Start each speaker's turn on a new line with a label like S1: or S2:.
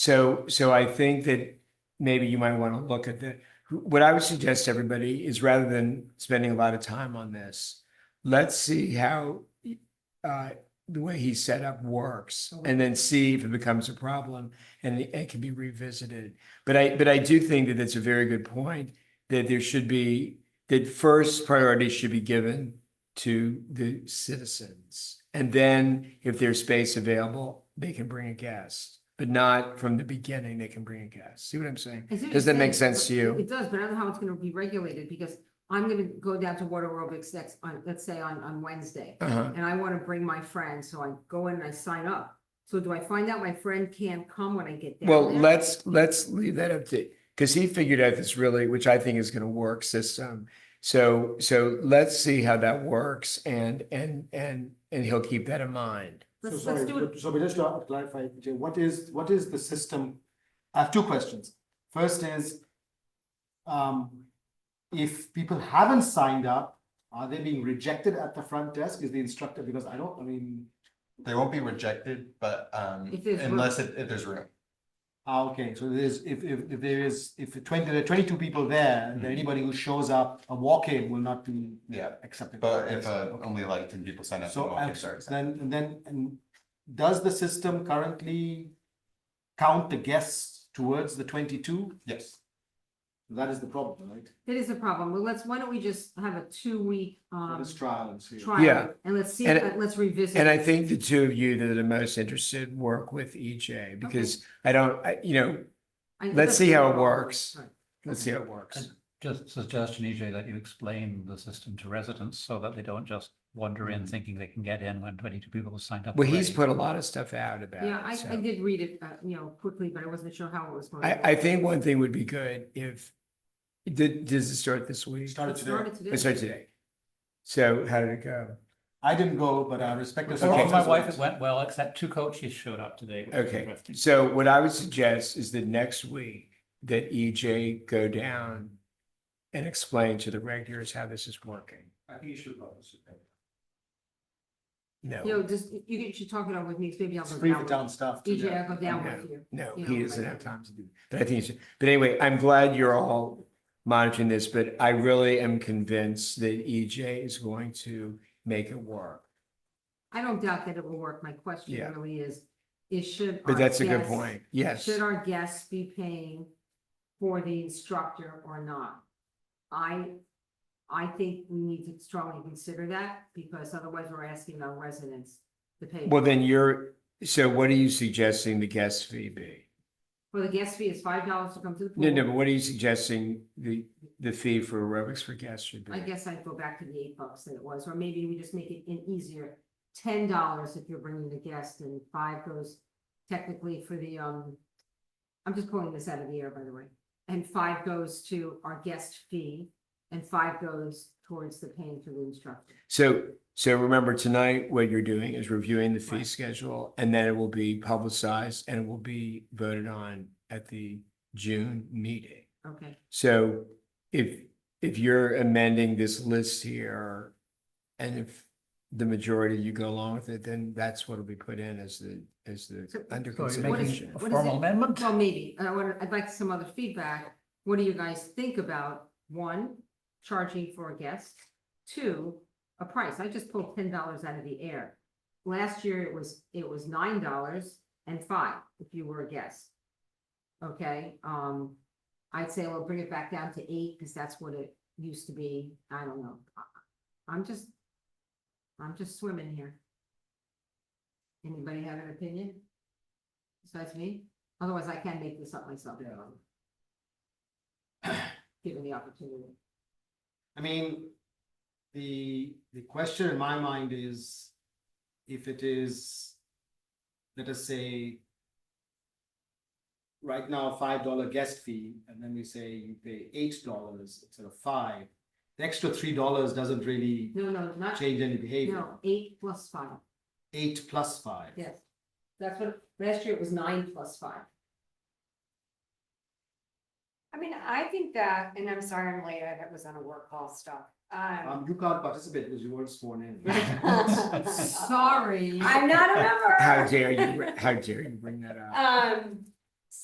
S1: So, so I think that maybe you might want to look at the, what I would suggest to everybody is rather than spending a lot of time on this, let's see how uh, the way he's set up works and then see if it becomes a problem and it can be revisited. But I, but I do think that it's a very good point that there should be, that first priority should be given to the citizens. And then if there's space available, they can bring a guest, but not from the beginning, they can bring a guest. See what I'm saying?
S2: I see what
S1: Does
S2: you're
S1: that make
S2: saying,
S1: sense to
S2: but
S1: you?
S2: It does, but I don't know how it's gonna be regulated, because I'm gonna go down to water aerobics next, on, let's say on, on Wednesday.
S1: Uh-huh.
S2: And I wanna bring my friend, so I go in and I sign up. So do I find out my friend can't come when I get down there?
S1: Well, let's, let's leave that up to, because he figured out this really, which I think is going to work system. So, so let's see how that works and, and, and, and he'll keep that in mind.
S3: So
S2: Let's, let's
S3: sorry,
S2: do it,
S3: but- so we just to clarify, Jay, what is, what is the system? I have two questions. First is, um, if people haven't signed up, are they being rejected at the front desk? Is the instructor, because I don't, I mean,
S4: They won't be rejected, but um
S2: If there's room.
S4: unless it if there's room.
S3: ah, okay, so there's, if, if, if there is, if twenty, there are twenty-two people there, then
S4: Mhm.
S3: anybody who shows up, a walk-in will not be
S4: Yeah,
S3: accepted.
S4: but if uh
S3: Okay.
S4: only like ten people sign up.
S3: So,
S4: then we'll
S3: I'm
S4: get
S3: sorry,
S4: started.
S3: then, and then, and does the system currently count the guests towards the twenty-two?
S4: Yes,
S3: That is the problem, right?
S2: that is a problem, well, let's, why don't we just have a two-week,
S3: Let
S2: um,
S3: us try and see.
S1: Yeah.
S2: trial, and let's see,
S1: And-
S2: uh, let's revisit.
S1: And I
S2: it.
S1: think the two of you that are the most interested work with EJ because I don't, I, you know,
S2: I-
S1: let's
S2: let's
S1: see
S2: do
S1: how
S2: it
S1: it
S2: all.
S1: works.
S2: Right.
S1: let's see how it works.
S5: Just suggestion, EJ, that you explain the system to residents so that they don't just wander in thinking they can get in when twenty-two people have signed up.
S1: Mm. Well, he's
S5: already.
S1: put a lot of stuff out about
S2: Yeah,
S1: it.
S2: I, I
S1: so.
S2: did read it, uh, you know, quickly, but I wasn't sure how it was going. to
S1: I, I
S2: work.
S1: think one thing would be good if, did, does it start this week?
S3: Started
S2: It started today.
S1: It started today. So how did it go?
S3: I didn't go, but I respect. the
S5: Well,
S3: circumstances.
S5: my wife, it went well, except two coaches showed up today. which was
S1: Okay,
S5: terrific.
S1: so what I would suggest is that next week that EJ go down and explain to the regulars how this is working.
S4: I think you should participate.
S2: You know,
S1: No,
S2: just, you- you should talk it out with me, 'cause maybe I'll
S3: It's
S2: go
S3: free for
S2: down.
S3: town staff. to-
S2: EJ, I'll go down
S1: Yeah.
S2: with you.
S1: no,
S2: you
S1: he
S2: know,
S1: doesn't
S2: like-
S1: have time to do, that. but I think he should. But anyway, I'm glad you're all monitoring this, but I really am convinced that EJ is going to make it work.
S2: I don't doubt that it will work. My question
S1: Yeah.
S2: really is, is should.
S1: But
S2: our
S1: that's a good
S2: guests-
S1: point. Yes.
S2: Uh, Should our guests be paying for the instructor or not? I, I think we need to strongly consider that because otherwise we're asking our residents to pay.
S1: Well, then you're, so what are you suggesting the guest fee be?
S2: Well, the guest fee is five dollars to come to the pool.
S1: No, no, but what are you suggesting the, the fee for aerobics for guests should be?
S2: I guess I'd go back to the eight bucks that it was, or maybe we just make it an easier, ten dollars if you're bringing the guest and five goes technically for the, um, I'm just pulling this out of the air, by the way, and five goes to our guest fee and five goes towards the paying for the instructor.
S1: So, so remember tonight, what you're doing is reviewing the fee
S2: Right.
S1: schedule and then it will be publicized and it will be voted on at the June meeting.
S2: Okay,
S1: So if, if you're amending this list here and if the majority of you go along with it, then that's what will be put in as the, as the
S2: So-
S1: under
S5: So
S1: consideration.
S2: What is-
S5: you're making a
S2: what is it?
S5: formal amendment?
S2: well, maybe, I want, I'd like some other feedback. What do you guys think about, one, charging for a guest? Two, a price. I just pulled ten dollars out of the air. Last year it was, it was nine dollars and five if you were a guest. Okay, um, I'd say we'll bring it back down to eight because that's what it used to be. I don't know. I- I'm just, I'm just swimming here. Anybody have an opinion? Besides me? Otherwise I can make this up myself. Given the opportunity.
S3: I mean, the, the question in my mind is if it is, let us say, right now, five dollar guest fee, and then we say you pay eight dollars instead of five, the extra three dollars doesn't really
S2: No, no, not,
S3: change any behavior.
S2: no, eight plus five.
S3: Eight plus five.
S2: Yes, that's what, last year it was nine plus five.
S6: I mean, I think that, and I'm sorry I'm late, I that was on a work call stuff. Um,
S3: Um, you can't participate because you weren't sworn in.
S2: Sorry.
S3: Um,
S6: I'm not a
S1: How
S6: member.
S1: dare you, how dare you bring that up?
S6: Um,